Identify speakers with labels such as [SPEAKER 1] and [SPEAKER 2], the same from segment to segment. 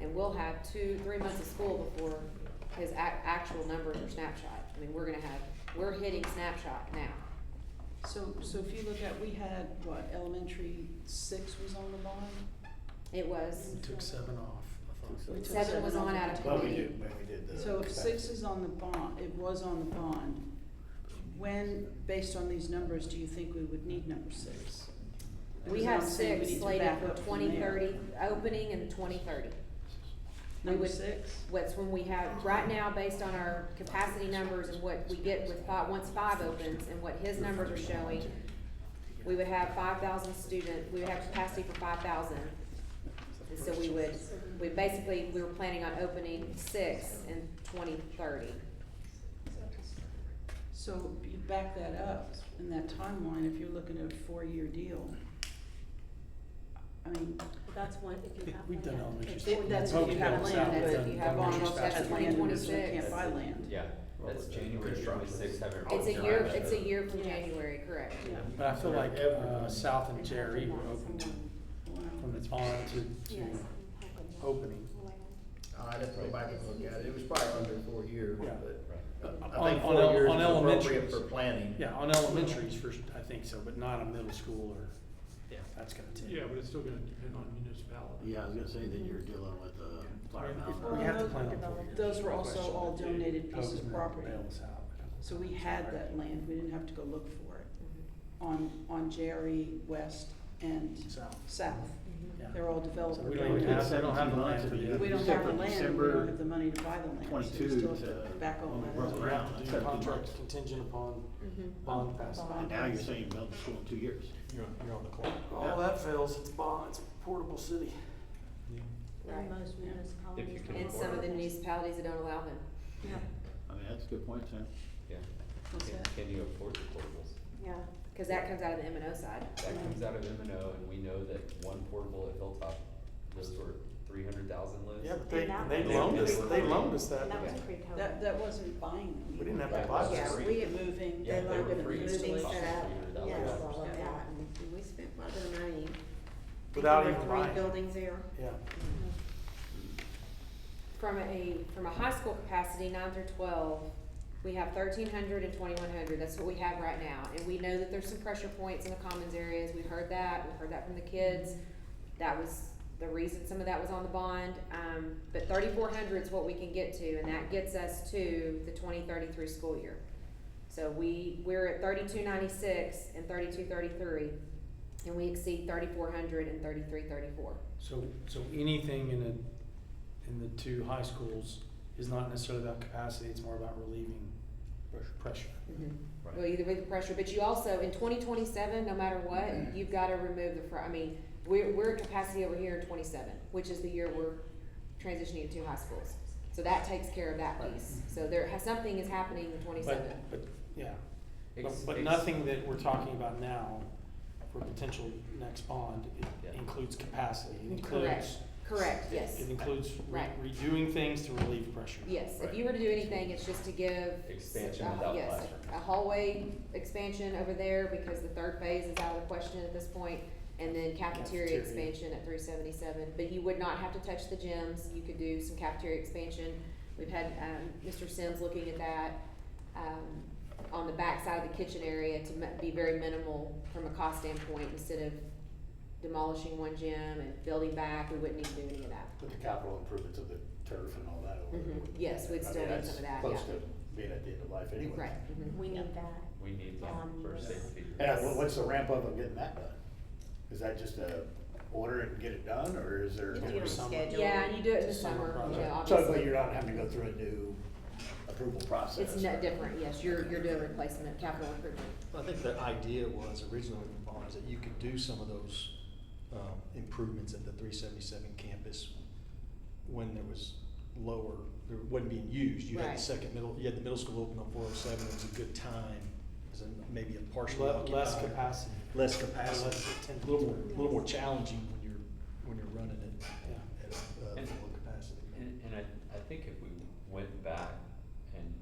[SPEAKER 1] and we'll have two, three months of school before his ac- actual numbers are snapshot. I mean, we're gonna have, we're hitting snapshot now.
[SPEAKER 2] So, so if you look at, we had, what, elementary six was on the bond?
[SPEAKER 1] It was,
[SPEAKER 3] We took seven off, I thought.
[SPEAKER 2] We took
[SPEAKER 1] seven was on out of
[SPEAKER 2] off.
[SPEAKER 4] Well, we
[SPEAKER 1] twenty.
[SPEAKER 4] did, when we did the.
[SPEAKER 2] So if six is on the bond, it was on the bond, when, based on these numbers, do you think we would need number six?
[SPEAKER 1] We
[SPEAKER 2] Because
[SPEAKER 1] have
[SPEAKER 2] I'm saying we
[SPEAKER 1] six
[SPEAKER 2] need to
[SPEAKER 1] slated
[SPEAKER 2] back
[SPEAKER 1] for
[SPEAKER 2] up from
[SPEAKER 1] twenty
[SPEAKER 2] there.
[SPEAKER 1] thirty, opening and twenty thirty. we
[SPEAKER 2] Number
[SPEAKER 1] would-
[SPEAKER 2] six?
[SPEAKER 1] What's when we have, right now, based on our capacity numbers and what we get with five, once five opens and what his numbers are showing, we would have five thousand student, we would have capacity for five thousand. And so we would, we basically, we were planning on opening six in twenty thirty.
[SPEAKER 2] So you back that up in that timeline, if you're looking at a four-year deal. I mean,
[SPEAKER 5] That's one, if you have.
[SPEAKER 3] We've
[SPEAKER 5] one
[SPEAKER 3] done
[SPEAKER 5] yet.
[SPEAKER 3] elementary
[SPEAKER 5] If
[SPEAKER 3] school.
[SPEAKER 5] they-
[SPEAKER 2] that's if you
[SPEAKER 3] Pope
[SPEAKER 2] have
[SPEAKER 3] Downs
[SPEAKER 2] land,
[SPEAKER 3] out,
[SPEAKER 2] that's
[SPEAKER 3] done
[SPEAKER 2] if
[SPEAKER 1] you have
[SPEAKER 3] elementary
[SPEAKER 1] bonds,
[SPEAKER 3] school.
[SPEAKER 1] that's
[SPEAKER 2] that's
[SPEAKER 1] twenty
[SPEAKER 2] land, and
[SPEAKER 1] twenty-six.
[SPEAKER 2] so you can't buy land.
[SPEAKER 6] Yeah, that's January twenty-sixth, have everyone.
[SPEAKER 1] It's a year, it's a year from
[SPEAKER 5] Yeah.
[SPEAKER 1] January, correct?
[SPEAKER 3] But I feel like, uh,
[SPEAKER 4] Everyone.
[SPEAKER 3] South and Jerry were open to,
[SPEAKER 2] Wow.
[SPEAKER 3] from its on to, to
[SPEAKER 5] Yes.
[SPEAKER 3] opening.
[SPEAKER 4] I'd have to go back and look at it, it was probably under four years,
[SPEAKER 3] Yeah.
[SPEAKER 4] but uh,
[SPEAKER 3] On-
[SPEAKER 4] I think
[SPEAKER 3] on
[SPEAKER 4] four
[SPEAKER 3] el-
[SPEAKER 4] years
[SPEAKER 3] on
[SPEAKER 4] is appropriate
[SPEAKER 3] elementaries.
[SPEAKER 4] for planning.
[SPEAKER 3] Yeah, on elementaries first, I think so, but not a middle school or, yeah, that's gonna take.
[SPEAKER 7] Yeah, but it's still gonna depend on municipality.
[SPEAKER 8] Yeah, I was gonna say that you're dealing with the fire
[SPEAKER 3] Um, We
[SPEAKER 8] mountain.
[SPEAKER 3] have to plan it for you.
[SPEAKER 2] Those were also all donated
[SPEAKER 3] Pope's
[SPEAKER 2] pieces of
[SPEAKER 3] gonna
[SPEAKER 2] property.
[SPEAKER 3] bail us out.
[SPEAKER 2] So we had that land, we didn't have to go look for it, on, on Jerry, West, and
[SPEAKER 3] South,
[SPEAKER 2] South.
[SPEAKER 3] yeah.
[SPEAKER 2] They're all
[SPEAKER 3] So
[SPEAKER 2] developed.
[SPEAKER 3] we don't even have, they don't have the land for the.
[SPEAKER 2] We don't have the land, and we don't have the money to buy the land, so we
[SPEAKER 8] 22
[SPEAKER 2] still have to
[SPEAKER 8] to
[SPEAKER 2] back on
[SPEAKER 8] only
[SPEAKER 2] that.
[SPEAKER 8] work around.
[SPEAKER 3] Do
[SPEAKER 8] That's
[SPEAKER 3] the
[SPEAKER 8] gotta be
[SPEAKER 3] contract
[SPEAKER 8] months.
[SPEAKER 3] contingent upon
[SPEAKER 1] Mhm.
[SPEAKER 3] bond passing.
[SPEAKER 8] And now you're saying build the school in two years.
[SPEAKER 7] You're, you're on the clock.
[SPEAKER 3] All that fails, it's bond, it's portable city.
[SPEAKER 1] Right.
[SPEAKER 5] In most municipalities.
[SPEAKER 6] If you can
[SPEAKER 1] And some of the municipalities that don't allow them.
[SPEAKER 5] Yeah,
[SPEAKER 8] I mean, that's a good point, Sam.
[SPEAKER 6] Yeah,
[SPEAKER 2] What's
[SPEAKER 6] Can-
[SPEAKER 2] that?
[SPEAKER 6] can you afford the portables?
[SPEAKER 5] yeah.
[SPEAKER 1] Cause that comes out of the M and O side.
[SPEAKER 6] That comes out of M and O, and we know that one portable at Hilltop, those were three hundred thousand list.
[SPEAKER 9] Yeah, but they,
[SPEAKER 5] And that
[SPEAKER 9] they
[SPEAKER 6] was-
[SPEAKER 9] loaned us,
[SPEAKER 6] Yeah.
[SPEAKER 9] they loaned us that.
[SPEAKER 5] And that was
[SPEAKER 6] Yeah.
[SPEAKER 5] pre-COVID.
[SPEAKER 2] That, that wasn't buying them.
[SPEAKER 9] We didn't have to buy
[SPEAKER 5] Yeah,
[SPEAKER 9] this.
[SPEAKER 5] we-
[SPEAKER 2] We were moving,
[SPEAKER 6] Yeah,
[SPEAKER 2] they
[SPEAKER 6] they
[SPEAKER 2] like
[SPEAKER 6] were
[SPEAKER 2] it
[SPEAKER 6] free.
[SPEAKER 5] Moving
[SPEAKER 2] moving.
[SPEAKER 6] Cost
[SPEAKER 5] set up,
[SPEAKER 6] us
[SPEAKER 5] yes,
[SPEAKER 9] $300.
[SPEAKER 5] all of that, and we spent a lot of money.
[SPEAKER 9] Without
[SPEAKER 5] There were
[SPEAKER 9] even
[SPEAKER 5] three
[SPEAKER 9] buying.
[SPEAKER 5] Buildings there.
[SPEAKER 9] Yeah,
[SPEAKER 1] From a, from a high school capacity, nine through twelve, we have thirteen hundred and twenty-one hundred, that's what we have right now. And we know that there's some pressure points in the commons areas, we heard that, we heard that from the kids. That was the reason some of that was on the bond, um, but thirty-four hundred is what we can get to, and that gets us to the twenty thirty-three school year. So we, we're at thirty-two ninety-six and thirty-two thirty-three, and we exceed thirty-four hundred and thirty-three thirty-four.
[SPEAKER 3] So, so anything in the, in the two high schools is not necessarily about capacity, it's more about relieving pressure.
[SPEAKER 6] Right.
[SPEAKER 1] Mm-hmm. Well, either with the pressure, but you also, in twenty twenty-seven, no matter what, you've gotta remove the, fr- I mean, we're, we're at capacity over here in twenty-seven, which is the year we're transitioning to high schools. So that takes care of that piece, so there, has- something is happening in twenty-seven.
[SPEAKER 3] But, but, yeah, but,
[SPEAKER 6] Ex-
[SPEAKER 3] but
[SPEAKER 6] ex-
[SPEAKER 3] nothing that we're talking about now for potential next bond i-
[SPEAKER 6] Yeah.
[SPEAKER 3] includes capacity, it
[SPEAKER 1] Correct,
[SPEAKER 3] includes.
[SPEAKER 1] correct, yes,
[SPEAKER 3] It includes re-
[SPEAKER 1] Right.
[SPEAKER 3] redoing things to relieve pressure.
[SPEAKER 1] yes, if you were to do anything, it's just to give.
[SPEAKER 6] Expansion
[SPEAKER 1] uh,
[SPEAKER 6] without
[SPEAKER 1] yes,
[SPEAKER 6] classroom.
[SPEAKER 1] A hallway expansion over there, because the third phase is out of the question at this point, and then cafeteria
[SPEAKER 3] Cafeteria.
[SPEAKER 1] expansion at three seventy-seven, but you would not have to touch the gyms, you could do some cafeteria expansion. We've had, um, Mr. Sims looking at that, um, on the backside of the kitchen area to mi- be very minimal from a cost standpoint, instead of demolishing one gym and building back, we wouldn't need to do any of that.
[SPEAKER 8] With the capital improvements of the turf and all that
[SPEAKER 1] Mhm. Yes, we'd
[SPEAKER 8] I mean,
[SPEAKER 1] still need
[SPEAKER 8] that's
[SPEAKER 1] some of that,
[SPEAKER 8] Close
[SPEAKER 1] yeah.
[SPEAKER 8] to being at the end of life anyway.
[SPEAKER 1] Right, mhm.
[SPEAKER 5] We need that.
[SPEAKER 6] We need that
[SPEAKER 5] Um,
[SPEAKER 6] for safety.
[SPEAKER 8] Yeah, well, what's the ramp up of getting that done? Is that just a order and get it done, or is there?
[SPEAKER 5] You do it
[SPEAKER 3] summer.
[SPEAKER 5] scheduled.
[SPEAKER 1] Yeah, and you do it in the
[SPEAKER 3] It's a summer
[SPEAKER 1] summer, you know,
[SPEAKER 3] project.
[SPEAKER 8] So,
[SPEAKER 1] obviously.
[SPEAKER 8] but you're not having to go through a new approval process?
[SPEAKER 1] It's net different, yes, you're, you're doing replacement, capital improvement.
[SPEAKER 10] Well, I think the idea was originally with the bond is that you could do some of those um, improvements at the three seventy-seven campus when there was lower, there wasn't being used. You had
[SPEAKER 1] Right.
[SPEAKER 10] the second middle, you had the middle school open on four oh seven, it was a good time, it was a- maybe a partially
[SPEAKER 3] Le-
[SPEAKER 10] occupied.
[SPEAKER 3] Less capacity.
[SPEAKER 10] Less
[SPEAKER 3] Less
[SPEAKER 10] capacity,
[SPEAKER 3] attendance.
[SPEAKER 10] a little more, a little more challenging when you're, when you're running it at uh,
[SPEAKER 6] And-
[SPEAKER 10] full capacity.
[SPEAKER 6] And, and I, I think if we went back and,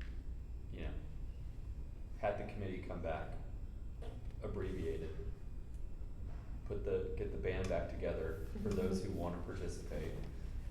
[SPEAKER 6] you know, had the committee come back, abbreviate it, put the, get the band back together for those who wanna participate,